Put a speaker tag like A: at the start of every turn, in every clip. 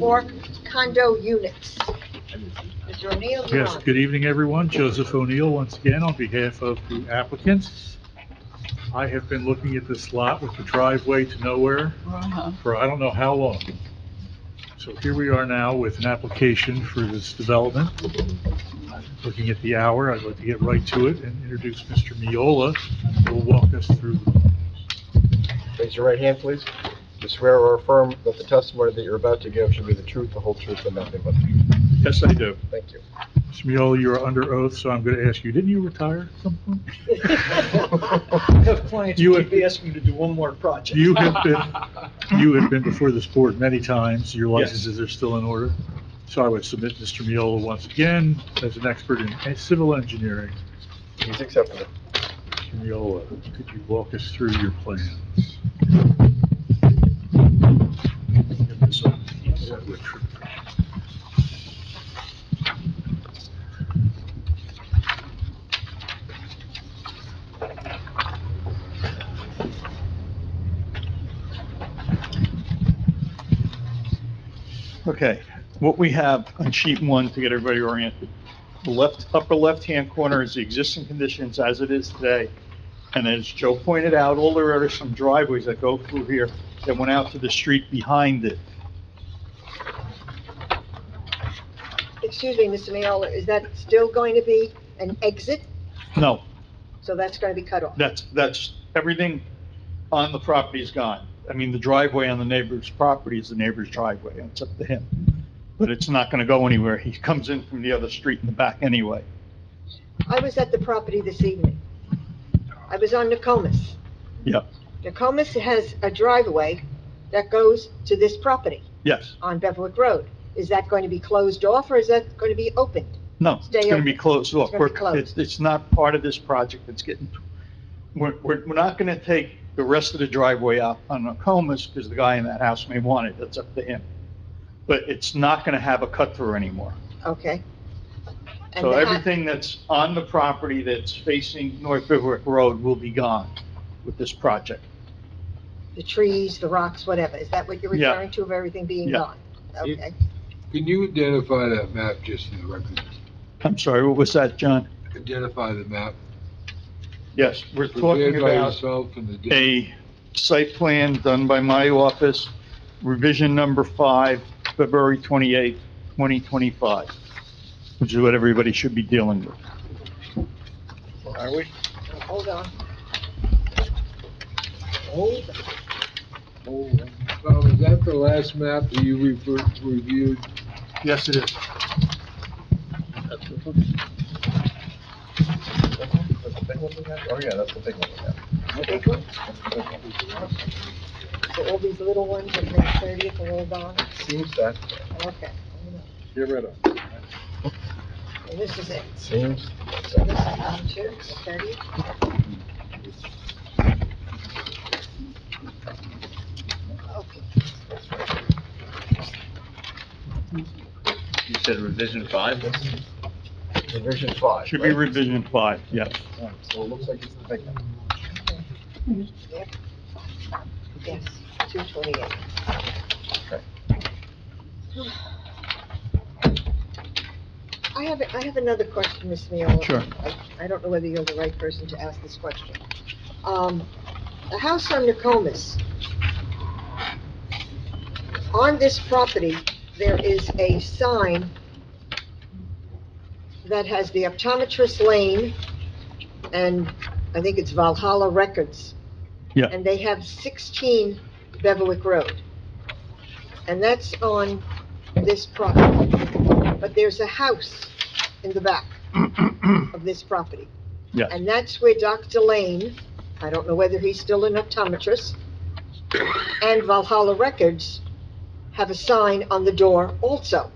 A: or condo units. Mr. O'Neill, you're
B: Yes,
A: on.
B: good evening, everyone. Joseph O'Neill, once again, on behalf of the applicants. I have been looking at this lot with the driveway to nowhere for I don't know how long. So here we are now with an application for this development. I'm Looking at the hour, I'd like to get right to it and introduce Mr. Miola, who will walk us through.
C: Raise your right hand, please. You swear or affirm that the testimony that you're about to give should be the truth, the whole truth, and nothing but the truth.
D: Yes, I do.
C: Thank you.
B: Mr. Miola, you are under oath, so I'm going to ask you, didn't you retire at some point?
E: I have clients
B: You
E: who
B: would-
E: keep asking me to do one more project.
B: You have been, you have been before this board many times, your
D: Yes.
B: licenses are still in order. So I would submit Mr. Miola once again as an expert in civil engineering.
C: He's accepted. it.
B: Mr. Miola, could you walk us through your plans?
D: Okay, what we have on sheet one, to get everybody oriented, the left, upper left-hand corner is the existing conditions as it is today. And as Joe pointed out, all there are is some driveways that go through here that went out to the street behind it.
A: Excuse me, Mr. Miola, is that still going to be an exit?
D: No,
A: So that's going to be cut off?
D: that's, that's, everything on the property is gone. I mean, the driveway on the neighbor's property is the neighbor's driveway, and it's up to him. But it's not gonna go anywhere. He comes in from the other street in the back anyway.
A: I was at the property this evening. I was on Nokomis.
D: Yep,
A: Nokomis has a driveway that goes to this property
D: yes.
A: on Beverwick Road. Is that going to be closed off or is that going to be opened?
D: No,
A: Stay
D: it's going to
A: open.
D: be closed off.
A: It's gonna be
D: We're- It's,
A: closed.
D: it's not part of this project. It's getting, we're, we're, we're not going to take the rest of the driveway out on Nokomis because the guy in that house may want it. That's up to him. But it's not going to have a cut through anymore.
A: Okay. And
D: So
A: the ha-
D: everything that's on the property that's facing North Bivouac Road will be gone with this project.
A: The trees, the rocks, whatever. Is that what you're
D: Yeah.
A: referring to of everything being
D: Yeah.
A: gone? Okay.
F: Can you identify that map just for the record?
D: I'm sorry, what was that, John?
F: Identify the map.
D: Yes, we're
F: Prepared
D: talking
F: by
D: about.
F: yourself and the district.
D: a site plan done by my office, revision number five, February 28, 2025, which is what everybody should be dealing with.
E: Are we?
A: Hold on. Hold on.
C: Oh,
F: Well, is that the last map that you refer- reviewed?
D: Yes, it is.
C: That's the big one we have? Oh, yeah, that's the big one we have.
A: Big one?
C: That's the big one.
A: So all these little ones at May thirtieth are all gone?
C: Seems that,
A: Okay.
F: Get rid of.
A: And this is it.
C: seems,
A: So this is one, two, thirty. Okay.
G: You said revision five?
C: revision five.
D: Should be
C: right?
D: revision five, yes.
C: Yeah, So it looks like it's the big one.
A: Yes, two twenty-eight. I have, I have another question, Ms. Miola.
D: Sure.
A: I- I don't know whether you're the right person to ask this question. Um, the house on Nokomis, on this property, there is a sign that has the optometrist lane, and I think it's Valhalla Records.
D: Yeah.
A: And they have 16 Beverwick Road. And that's on this property. But there's a house in the back of this property.
D: Yeah.
A: And that's where Dr. Lane, I don't know whether he's still an optometrist, and Valhalla Records have a sign on the door also.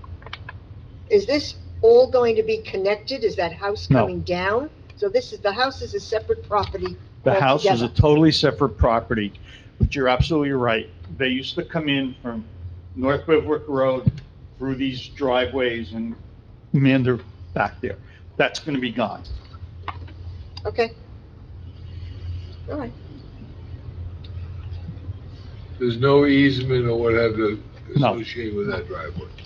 A: Is this all going to be connected? Is that house
D: No.
A: coming down? So this is, the house is a separate property
D: The house is a
A: altogether.
D: totally separate property, but you're absolutely right. They used to come in from North Bivouac Road through these driveways and meander back there. That's going to be gone.
A: Okay. All right.
F: There's no easement or whatever
D: No.
F: associated with that driveway?